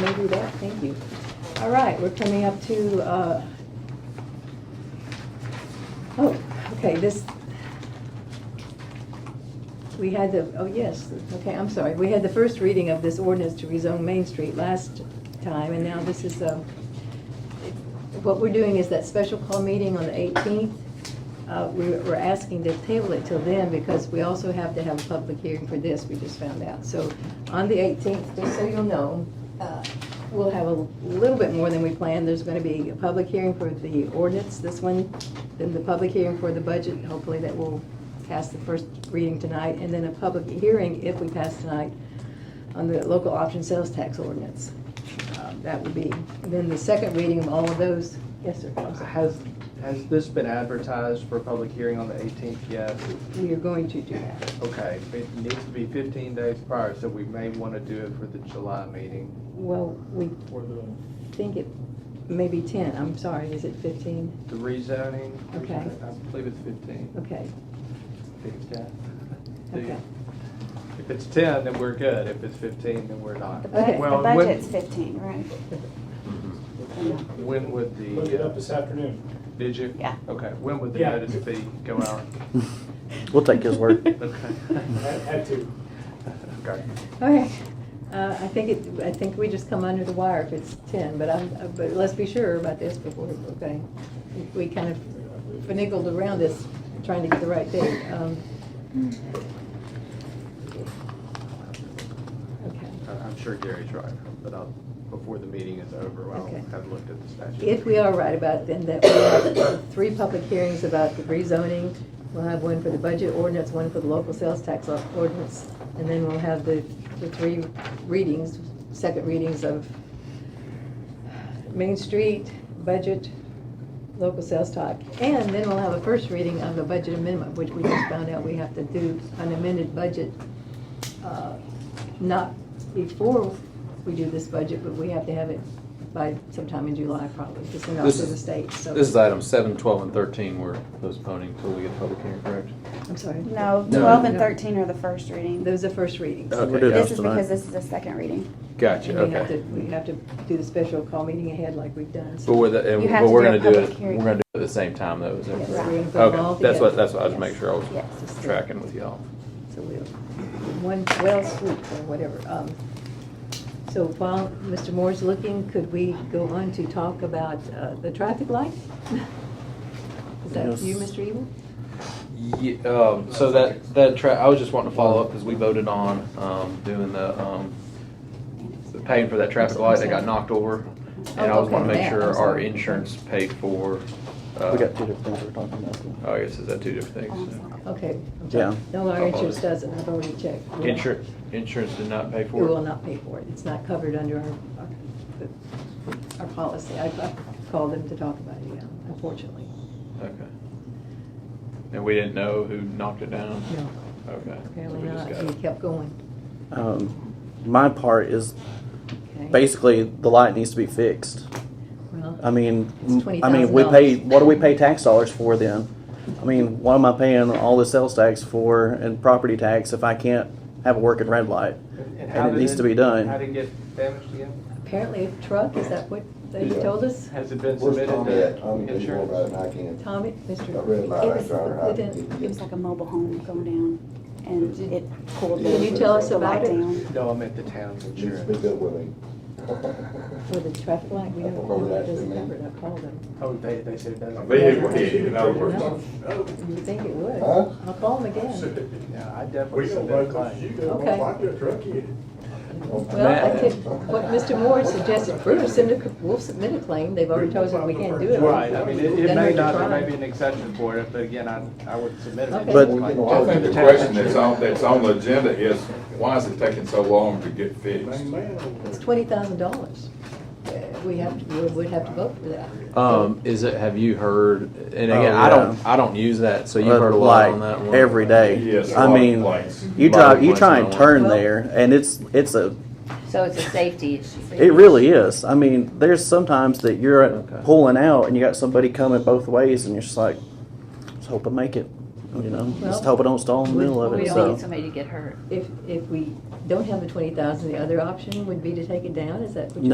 May do that, thank you. All right, we're coming up to, uh, oh, okay, this, we had the, oh, yes, okay, I'm sorry. We had the first reading of this ordinance to rezone Main Street last time, and now this is, um, what we're doing is that special call meeting on the 18th. Uh, we- We're asking to table it till then because we also have to have a public hearing for this, we just found out. So on the 18th, just so you'll know, uh, we'll have a little bit more than we planned. There's going to be a public hearing for the ordinance, this one, then the public hearing for the budget, hopefully that will pass the first reading tonight, and then a public hearing, if we pass tonight, on the local option sales tax ordinance. Um, That would be, and then the second reading of all of those, yes, sir. I'm sorry. Has, has this been advertised for public hearing on the 18th yet? We are going to do that. Okay, it needs to be 15 days prior, so we may want to do it for the July meeting. Well, we for the, think it may be 10, I'm sorry, is it 15? The rezoning? Okay. I believe it's 15. Okay, I think it's 10. Do you- okay. If it's 10, then we're good. If it's 15, then we're not. The budget- the Well, when- budget's fifteen, right? When would look it the, up uh, this afternoon. did you? Yeah. Okay, when would the Yeah. notice be go out? We'll take his word. Okay. Had had to. Okay. Okay, Uh, I think it, I think we just come under the wire if it's 10, but I'm, uh, but let's be sure about this before, okay? We kind of finagled around this, trying to get the right date. Um, Okay. I- I'm sure Gary's right, but I'll, before the meeting is over, I'll Okay. have looked at the statute. If we are right about then that we have three public hearings about the rezoning, we'll have one for the budget ordinance, one for the local sales tax or- ordinance, and then we'll have the, the three readings, second readings of Main Street, budget, local sales tax, and then we'll have a first reading of the budget amendment, which we just found out we have to do an amended budget, uh, not before we do this budget, but we have to have it by sometime in July probably, just send off This to the is- state, so. This is item seven, twelve, and thirteen we're postponing until we get a public hearing, correct? I'm sorry. No, No. twelve and thirteen are the first reading. Those are first readings. Okay, We'll do This those is tonight. because this is the second reading. Gotcha, And we have to, okay. we have to do the special call meeting ahead like we've done. so- But with, the- and- You have but to we're do gonna a do public it, we're hearing. gonna do it at the same time though, is that Yes, correct? we're gonna put them all Okay, that's what, together. that's what, I was Yes. making sure I was Yes. tracking with y'all. So we'll, one well sweep or whatever. Um, So while Mr. Moore's looking, could we go on to talk about uh, the traffic light? Is that you, Yes. Mr. Evil? Ye- um, so that, that tra, I was just wanting to follow up because we voted on, um, doing the, um, the paying for that traffic light that got knocked over. And I Oh, was wanting to okay, that, make sure I'm our sorry. insurance paid for, uh, We got two different things we're talking about. oh, I guess is that two different things? Okay. I'm sorry. Yeah. No, our I'll insurance follow doesn't, I've already checked. We don't- Insurance, insurance did not pay for We it? will not pay for it. It's not covered under our, our- our policy. I I called them to talk about it, yeah, unfortunately. Okay. And we didn't know who knocked it down? No, Okay. so apparently we just not. got And it. it kept going. Um, My part is Okay. basically the light needs to be fixed. Well, I mean, It's I mean, we $20,000. pay, what do we pay tax dollars for then? I mean, what am I paying all the sales tax for and property tax if I can't have a working red light? how And it did needs to be done. How did it get damaged again? Apparently a truck, is that what they Yeah. told us? Has it been Where's submitted Tommy to at? Tommy didn't know about it, insurance? and I can't. Tommy, Mr. That red light, It I was tried to hide it. Lieutenant- It was like a mobile home going down and it pulled Can you the tell us light about it? down. No, I'm at the town's You insurance. speak up with me. For the traffic light, we I don't don't know, remember it that, doesn't didn't cover they? it, I called them. Oh, they, they said it doesn't. Vehicle hit, in other words. No. You would think it would. Huh? I'll call them again. Yeah, I We definitely don't submitted a like this, you claim. don't Okay. like that truck yet. Oh, Well, I could, what Mr. Moore suggested, we're gonna send a, we'll submit a claim, they've already told us that we can't do it. Right, I mean, it, it Then may we're not, there trying. may be an exception for it, but again, I, I would submit it. Okay. But- I think the question that's on, that's on the agenda is, why is it taking so long to get fixed? It's twenty thousand dollars. We have, to- we would have to vote for that. Um, is it, have you heard, and Oh, again, yeah. I don't, I don't use that, so you've heard a lot Like, on that one? Every day. Yes, a I lot of mean, lights. you Lot of try, you lights try on and that one. turn Well- there and it's, it's a, So it's a safety issue. It really is. I mean, there's sometimes that you're Okay. pulling out and you got somebody coming both ways, and you're just like, just hope I make it. You know, just Well, hope I don't stall in the we- middle of we it. We don't So need somebody to get hurt. If, if we don't have the twenty thousand, the other option would be to take it down, is that what you're